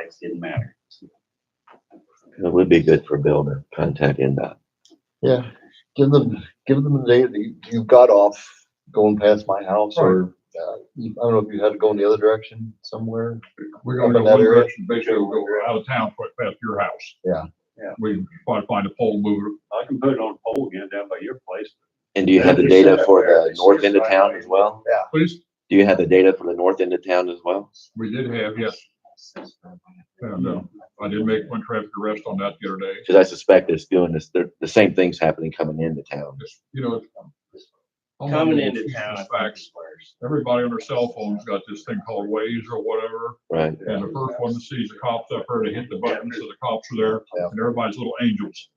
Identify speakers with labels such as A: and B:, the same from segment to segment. A: it didn't matter.
B: It would be good for Bill to contact NDOT.
C: Yeah, give them, give them the day that you- you got off going past my house or, uh, you- I don't know if you had to go in the other direction somewhere.
D: We're gonna go
C: Up in that
D: one
C: area?
D: direction, basically we'll go out of town, put past your house.
C: Yeah.
A: Yeah.
D: We probably find a pole mover.
A: I can put it on a pole again down by your place.
B: And do you have the data for the north end of town as well?
D: Please,
B: Do you have the data for the north end of town as well?
D: we did have, yes, and, uh, I did make one traffic arrest on that the other day.
B: Cause I suspect it's doing this, they're- the same thing's happening coming into town.
D: Just, You know. it's-
A: Coming into town. I think
D: Mm-hmm. Facts.
A: it's worse.
D: Everybody on their cell phones got this thing called Waze or whatever,
B: Right.
D: and the first one that sees the cops up there, they hit the button, so the cops are there,
C: Yeah.
D: and everybody's little angels.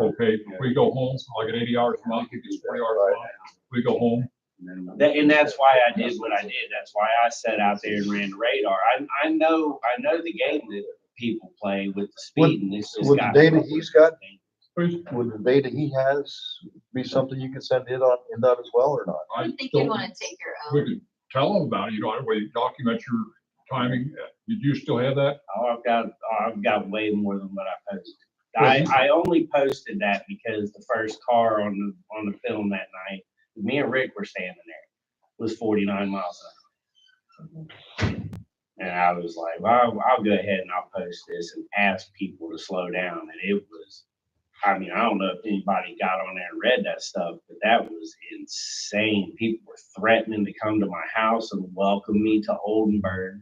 D: Okay, if we go home, like at eighty hours a month, it gets twenty hours a month, we go home,
A: That, and that's why I did what I did. That's why I sat out there and ran the radar. I, I know, I know the game that people play with the
C: Would-
A: speed and this just
C: would the
A: got.
C: data he's got-
D: please,
C: Would the data he has be something you could send in on, in that as well or not?
D: I
E: I think you'd
D: don't-
E: wanna take your
D: we
E: own.
D: could tell them about it, you know, that way you document your timing. uh, Did you still have that?
A: Oh, I've got, oh, I've got way more than what I posted. I, I only posted that because the first car on the, on the film that night, me and Rick were standing there, was forty-nine miles an hour. And I was like, well, I'll- I'll go ahead and I'll post this and ask people to slow down. And it was, I mean, I don't know if anybody got on there and read that stuff, but that was insane. People were threatening to come to my house and welcome me to Oldenburg.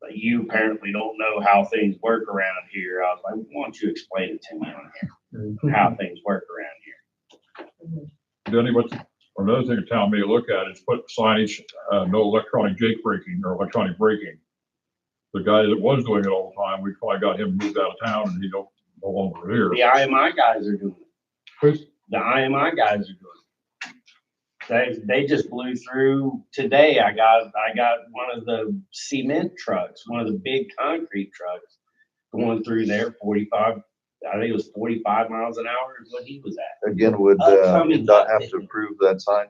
A: But you apparently don't know how things work around here. I was like, why don't you explain it to me on here, how things work around here?
D: Denny, what's, another thing the town may look at is put signage, uh, no electronic jake braking or electronic braking. The guy that was doing it all the time, we probably got him moved out of town and he don't, no longer here.
A: The IMI guys are doing it.
D: Who's-
A: The IMI guys are doing it. They, they just blew through today. I got, I got one of the cement trucks, one of the big concrete trucks going through there forty-five, I think it was forty-five miles an hour is what he was at.
C: Again, would, uh,
A: Upcoming.
C: not have to approve that sign?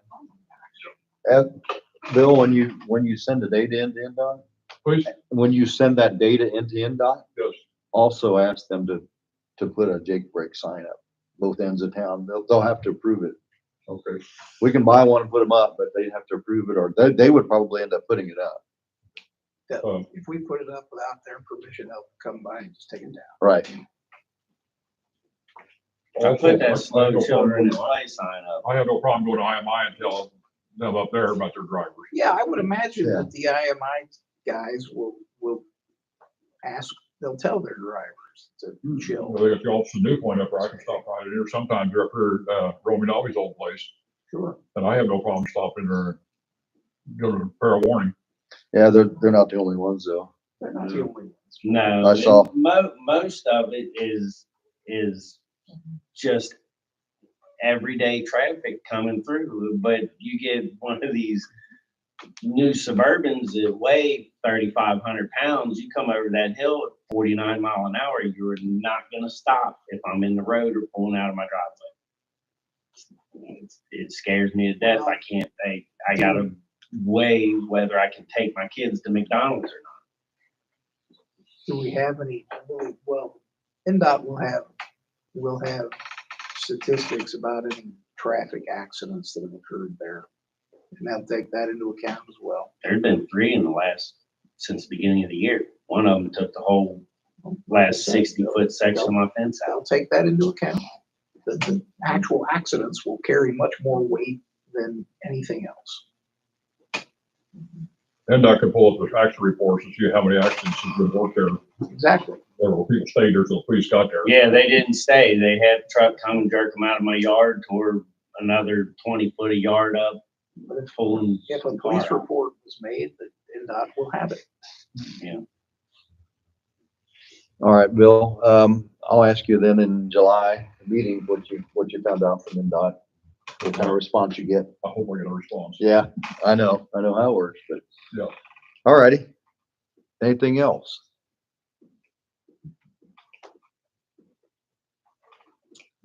C: And Bill, when you, when you send the data into NDOT,
D: Please,
C: when you send that data into NDOT,
D: yes,
C: also ask them to, to put a Jake Break sign up, both ends of town. They'll, they'll have to approve it.
D: okay.
C: We can buy one and put them up, but they have to approve it or they, they would probably end up putting it up.
D: Um,
F: If we put it up without their permission, they'll come by and just take it down.
C: Right.
A: I
D: also,
A: put that
D: I had
A: slow
D: no
A: children in
D: problem-
A: play sign up.
D: I have no problem going to IMI and tell them up there about their drivers.
F: Yeah, I would imagine
C: Yeah.
F: that the IMI guys will, will ask, they'll tell their drivers
D: Hmm,
F: to chill.
D: Well, They got the Officer New Point up there, I can stop right in here sometimes, you're up here, uh, Romy Dolly's old place.
F: Sure.
D: And I have no problem stopping there, and giving a fair warning.
C: Yeah, they're, they're not the only ones though.
F: They're not the only ones.
A: No.
C: I
A: it-
C: saw.
A: Mo- most of it is, is just everyday traffic coming through, but you get one of these new Suburbans that weigh thirty-five hundred pounds, you come over that hill at forty-nine mile an hour, you're not gonna stop if I'm in the road or pulling out of my driveway. It's- It scares me to death. I can't, I, I gotta weigh whether I can take my kids to McDonald's or
F: Do we have any, really- well, NDOT will have, will have statistics about any traffic accidents that have occurred there. And they'll take that into account as well.
A: there's been three in the last, since the beginning of the year. One of them took the whole last sixty foot section of my fence out.
F: They'll take that into account. The, the actual accidents will carry much more weight than anything else.
D: And I can pull up the accident reports and see how many accidents has been worked there,
F: Exactly.
D: there were people stayed there, so the police got there.
A: Yeah, they didn't stay. They had a truck come and jerk them out of my yard, tore another twenty foot of yard up,
F: But if,
A: pulling.
F: if a police
A: car out.
F: report was made, the NDOT will have it.
C: All right, Bill, um, I'll ask you then in July meeting, what you, what you found out from NDOT, what kind of response you get.
D: I hope I get a response.
C: Yeah, I know, I know how it works, but.
D: Yeah.
C: All righty. Anything else?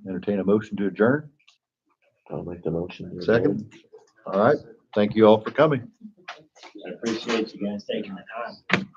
C: Entertain a motion to adjourn?
B: I'll make the motion.
C: Second. All right, thank you all for coming.
A: I appreciate you guys taking the time.